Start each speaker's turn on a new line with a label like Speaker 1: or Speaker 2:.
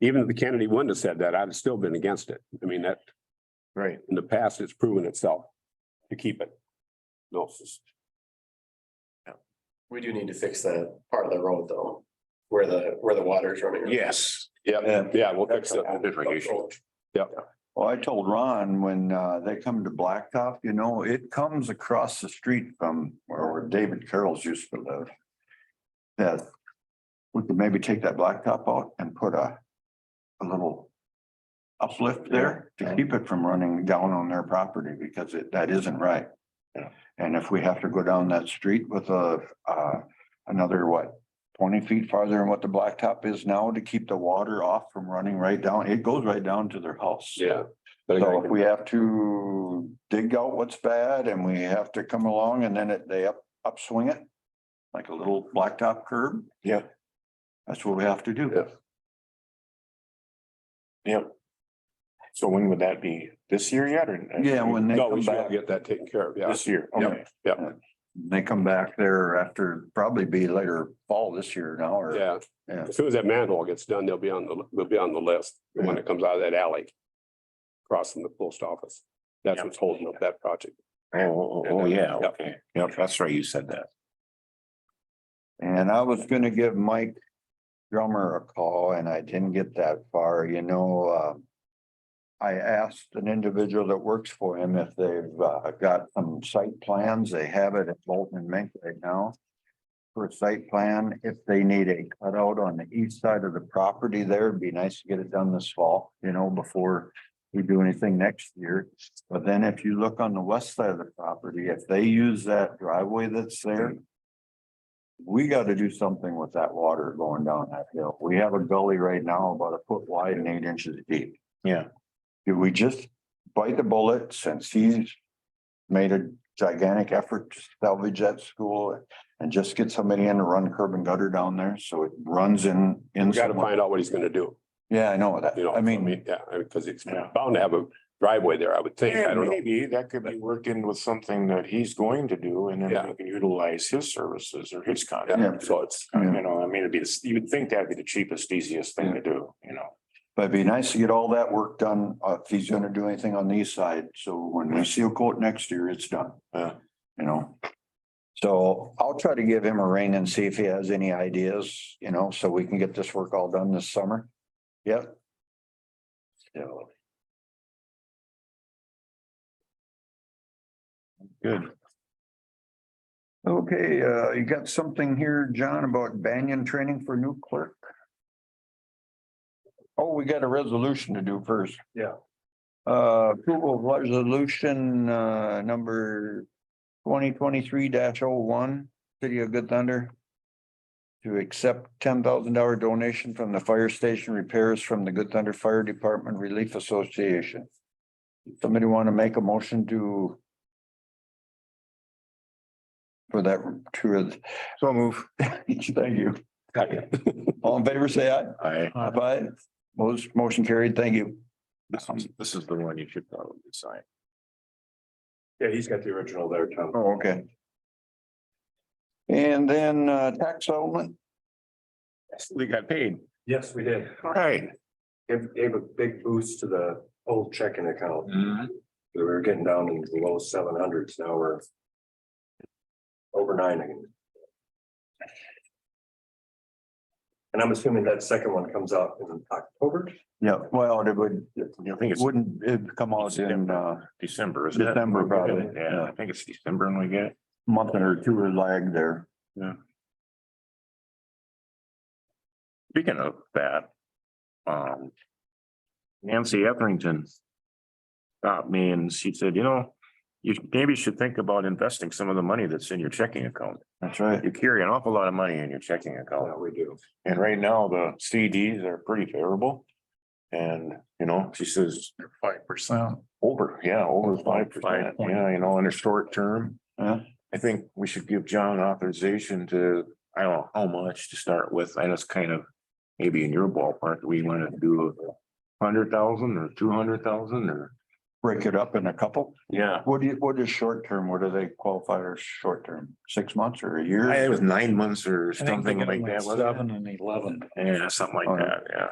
Speaker 1: Even if the Kennedy wouldn't have said that, I'd have still been against it. I mean, that
Speaker 2: Right.
Speaker 1: in the past, it's proven itself to keep it. No, it's just-
Speaker 3: We do need to fix that part of the road though, where the, where the water's running.
Speaker 1: yes, yeah,
Speaker 2: Yeah.
Speaker 1: yeah, we'll fix it. Different issue.
Speaker 2: Well, I told Ron when uh they come to Blacktop, you know, it comes across the street from where David Carroll's used to live. That we could maybe take that blacktop out and put a a little uplift there to keep it from running down on their property because it, that isn't right.
Speaker 3: Yeah.
Speaker 2: And if we have to go down that street with a uh another what, twenty feet farther than what the blacktop is now to keep the water off from running right down, it goes right down to their house.
Speaker 1: Yeah.
Speaker 2: So if we have to dig out what's bad and we have to come along and then it, they up, upswing it. Like a little blacktop curb.
Speaker 3: Yeah.
Speaker 2: That's what we have to do.
Speaker 1: Yeah.
Speaker 3: So when would that be? This year yet or?
Speaker 2: Yeah, when they
Speaker 1: No,
Speaker 2: come
Speaker 1: we should
Speaker 2: back,
Speaker 1: get that taken care of, yeah.
Speaker 3: year,
Speaker 1: okay.
Speaker 2: they come back there after, probably be later fall this year now or,
Speaker 1: Yeah.
Speaker 2: Yeah.
Speaker 1: As soon as that manhole gets done, they'll be on the, they'll be on the list when it comes out of that alley. across from the post office. That's
Speaker 3: Yeah.
Speaker 1: what's holding up that project.
Speaker 3: Oh, oh,
Speaker 1: oh,
Speaker 3: yeah,
Speaker 1: Yep.
Speaker 3: okay. Yep, that's right. You said that.
Speaker 2: and I was gonna give Mike. Drummer a call and I didn't get that far, you know, um. I asked an individual that works for him if they've uh, got some site plans. They have it at Bolton and Mink right now. For a site plan, if they need a cutout on the east side of the property there, it'd be nice to get it done this fall, you know, before we do anything next year. But then if you look on the west side of the property, if they use that driveway that's there, we got to do something with that water going down that hill. We have a gully right now about a foot wide and eight inches deep.
Speaker 3: Yeah.
Speaker 2: Do we just bite the bullet since he's made a gigantic effort to salvage that school and just get somebody in to run curb and gutter down there so it runs in, in.
Speaker 1: We gotta
Speaker 2: somewhere?
Speaker 1: find out what he's gonna do,
Speaker 2: Yeah, I know that.
Speaker 1: you know.
Speaker 2: I mean,
Speaker 1: Yeah, I mean, cause it's
Speaker 3: Yeah.
Speaker 1: bound to have a driveway there, I would think. I
Speaker 4: And
Speaker 1: don't know.
Speaker 4: maybe that could be worked in with something that he's going to do and then
Speaker 1: Yeah.
Speaker 4: we can utilize his services or his
Speaker 1: Yeah,
Speaker 4: content.
Speaker 1: so it's,
Speaker 4: You know, I mean, it'd be, the- you would think that'd be the cheapest, easiest thing to do, you know?
Speaker 2: but it'd be nice to get all that work done, uh, if he's gonna do anything on the east side, so when we seal coat next year, it's done.
Speaker 4: Yeah.
Speaker 2: You know? So I'll try to give him a ring and see if he has any ideas, you know, so we can get this work all done this summer. Yep. So. Good. Okay, uh, you got something here, John, about Banyan training for new clerk? Oh, we got a resolution to do first.
Speaker 1: Yeah.
Speaker 2: Uh, approval of resolution, uh, number twenty twenty-three dash oh one, City of Good Thunder. To accept ten thousand dollar donation from the fire station repairs from the Good Thunder Fire Department Relief Association. Somebody want to make a motion to? For that, to,
Speaker 3: So move.
Speaker 2: thank you.
Speaker 1: Second.
Speaker 2: All in favor, say aye.
Speaker 3: I,
Speaker 2: Aye. Most motion carried. Thank you.
Speaker 3: this is, this is the one you should probably sign.
Speaker 1: Yeah, he's got the original there, Tom.
Speaker 2: Oh, okay. And then uh, tax settlement,
Speaker 3: We got paid.
Speaker 4: Yes, we did.
Speaker 3: All right.
Speaker 4: Gave, gave a big boost to the old checking account.
Speaker 3: Mm-hmm.
Speaker 4: We were getting down in the low seven hundreds. Now we're over nine again. And I'm assuming that second one comes out in October.
Speaker 2: yeah, well, it would,
Speaker 3: I think
Speaker 2: it
Speaker 3: it's
Speaker 2: wouldn't, it'd come out in uh
Speaker 3: December, isn't it?
Speaker 2: December, probably,
Speaker 3: Yeah, I think it's December when we get it.
Speaker 2: month or two or lag there.
Speaker 3: Speaking of that, um, Nancy Etherington stopped me and she said, you know, you maybe should think about investing some of the money that's in your checking account.
Speaker 2: That's right.
Speaker 3: You carry an awful lot of money in your checking account.
Speaker 4: we do.
Speaker 3: And right now, the CDs are pretty favorable. And, you know, she says. Five percent. Over, yeah, over five percent, yeah, you know, in a short term.
Speaker 2: Yeah.
Speaker 3: I think we should give John authorization to, I don't know how much to start with, I just kind of. Maybe in your ballpark, we want to do a hundred thousand or two hundred thousand or.
Speaker 2: Break it up in a couple.
Speaker 3: Yeah.
Speaker 2: What do you, what is short term? What do they qualify as short term? Six months or a
Speaker 3: I think
Speaker 2: year?
Speaker 3: it was nine months or something like that, wasn't it?
Speaker 5: and eleven.
Speaker 3: Yeah, something like that, yeah.